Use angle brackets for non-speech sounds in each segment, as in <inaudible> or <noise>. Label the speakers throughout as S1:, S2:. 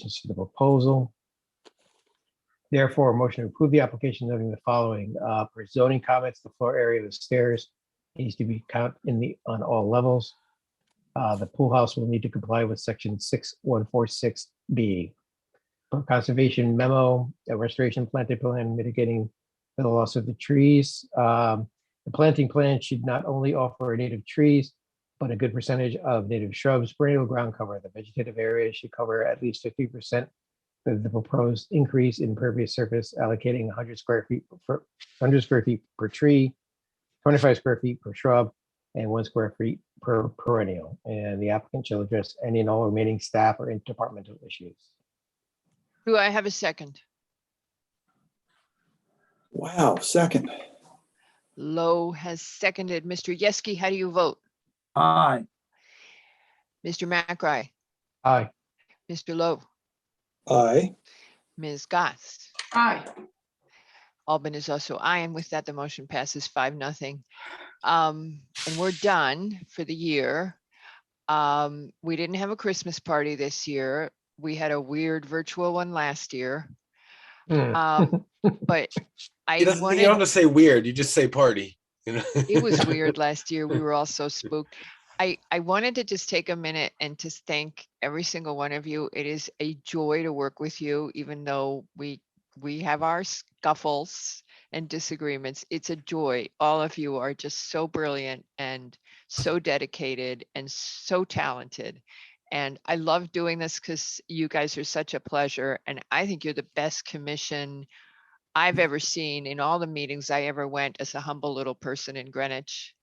S1: objections to the proposal. Therefore, a motion to approve the application noting the following, uh, for zoning comments, the floor area of the stairs needs to be count in the, on all levels. Uh, the pool house will need to comply with section six one four six B. Conservation memo, a restoration planted plan mitigating the loss of the trees. Um, the planting plan should not only offer native trees, but a good percentage of native shrubs, perennial ground cover. The vegetative area should cover at least fifty percent of the proposed increase in pervious surface, allocating hundred square feet for, hundred square feet per tree, twenty-five square feet per shrub, and one square feet per perennial. And the applicant shall address any and all remaining staff or interdepartmental issues.
S2: Do I have a second?
S3: Wow, second.
S2: Lowe has seconded. Mr. Yeski, how do you vote?
S4: Aye,
S2: Mr. McRae,
S1: Aye,
S2: Mr. Lowe,
S3: Aye.
S2: Ms. Goss.
S5: Aye.
S2: Albin is also aye, and with that, the motion passes five, nothing. Um, and we're done for the year. Um, we didn't have a Christmas party this year. We had a weird virtual one last year.
S1: Hmm,
S2: Um, but I
S6: It doesn't, you
S2: wanted.
S6: don't have to say weird. You just say party. You know?
S2: it
S6: <laughs>
S2: was weird last year. We were all so spooked. I, I wanted to just take a minute and to thank every single one of you. It is a joy to work with you, even though we we have our scuffles and disagreements. It's a joy. All of you are just so brilliant and so dedicated and so talented. And I love doing this because you guys are such a pleasure. And I think you're the best commission I've ever seen in all the meetings I ever went as a humble little person in Greenwich.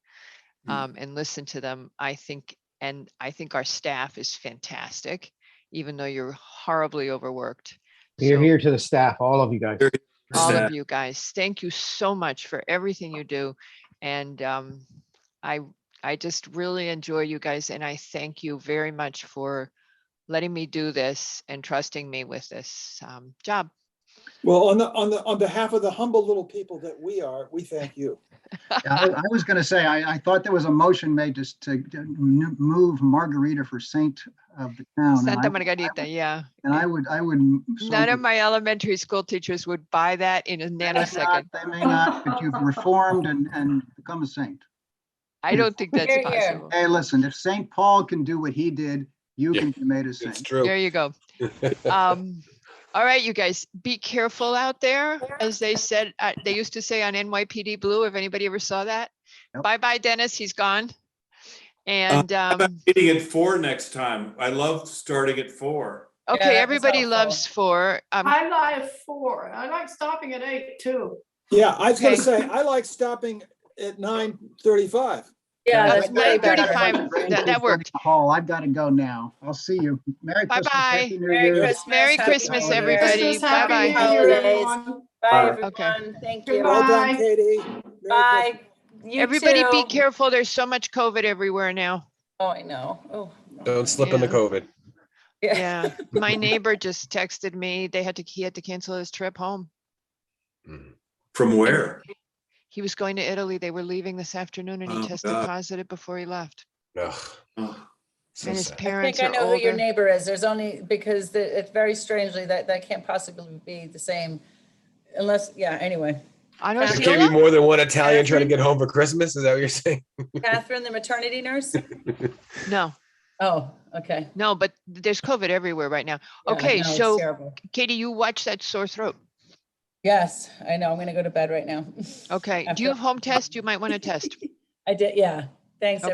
S4: Mm.
S2: Um, and listened to them, I think, and I think our staff is fantastic, even though you're horribly overworked.
S1: Here,
S2: So-
S1: here to the staff, all of you guys.
S2: all of you guys. Thank you so much for everything you do. And um, I, I just really enjoy you guys and I thank you very much for letting me do this and trusting me with this um, job.
S3: Well, on the, on the, on behalf of the humble little people that we are, we thank you.
S4: Yeah,
S2: Uh,
S4: I I was going to say, I, I thought there was a motion made just to to n- move Margarita for saint of the town. and
S2: Santa
S4: Oh, I-
S2: Margarita, yeah.
S4: And I would, I would. so
S2: None of
S4: would-
S2: my elementary school teachers would buy that in a
S4: They may not,
S2: nanosecond.
S4: they may not, but you've reformed and, and become a saint.
S2: I don't think that's
S5: Hear, hear.
S2: possible.
S4: Hey, listen, if Saint Paul can do what he did, you
S6: Yeah.
S4: can be made a
S6: it's
S4: saint.
S6: true.
S2: There you go. Um, all right, you guys, be careful out there. As they said, uh, they used to say on NYPD Blue, if anybody ever saw that.
S4: Yep.
S2: Bye bye, Dennis, he's gone. And, um,
S7: Uh, Meeting at four next time. I love starting at four.
S2: okay,
S5: was
S2: everybody
S5: helpful.
S2: loves four. Um,
S5: I like four. I like stopping at eight too.
S3: Yeah, I was gonna
S2: Okay.
S3: say, I like stopping at nine thirty-five.
S5: Yeah,
S2: that's
S5: that's way better.
S2: 9:35. that- that worked.
S4: Paul, I've got to go now. I'll see you. Merry Christmas.
S2: Bye-bye.
S4: Happy New
S8: Merry
S4: Year.
S8: Christmas.
S2: Merry
S8: Happy
S2: Christmas,
S8: New Year.
S2: everybody.
S5: Christmas,
S2: Bye-bye.
S5: Happy New Year,
S8: Holidays.
S5: everyone.
S8: Bye,
S2: Okay.
S8: everyone. Thank
S3: Well
S8: you.
S5: Goodbye.
S3: done, Katie. Merry
S8: Bye. You
S2: everybody be
S8: too.
S2: careful. There's so much COVID everywhere now.
S8: <laughs> Oh, I know. Oh.
S6: Don't slip into
S2: Yeah.
S6: COVID.
S2: Yeah, my neighbor just texted me. They had to, he had to cancel his trip home.
S6: Mm.
S7: From where?
S2: He was going to Italy. They were leaving this afternoon and he
S7: Oh,
S2: tested
S7: God.
S2: positive before he left.
S6: Ugh,
S7: Oh,
S6: so
S2: And his
S6: sad.
S8: <laughs> I
S2: parents
S8: think I
S2: are
S8: know who your
S2: older.
S8: neighbor is. There's only, because the- it's very strangely, that, that can't possibly be the same unless, yeah,
S2: <laughs>
S8: anyway.
S2: I don't
S6: There
S2: see
S6: can't be more than one Italian trying to
S8: Catherine?
S6: get home for Christmas. Is that what you're <laughs> saying?
S8: Catherine, the maternity
S2: <laughs>
S8: nurse?
S2: No,
S8: Oh, okay.
S2: no, but there's COVID everywhere right now.
S8: Yeah, I
S2: Okay,
S8: know, it's
S2: so-
S8: terrible.
S2: Katie, you watch that sore throat.
S8: Yes, I know. I'm going to go to bed right now. <laughs>
S2: Okay. Do you
S8: After-
S2: have home test? You might want to test.
S8: I did, yeah. Thanks,
S2: Okay.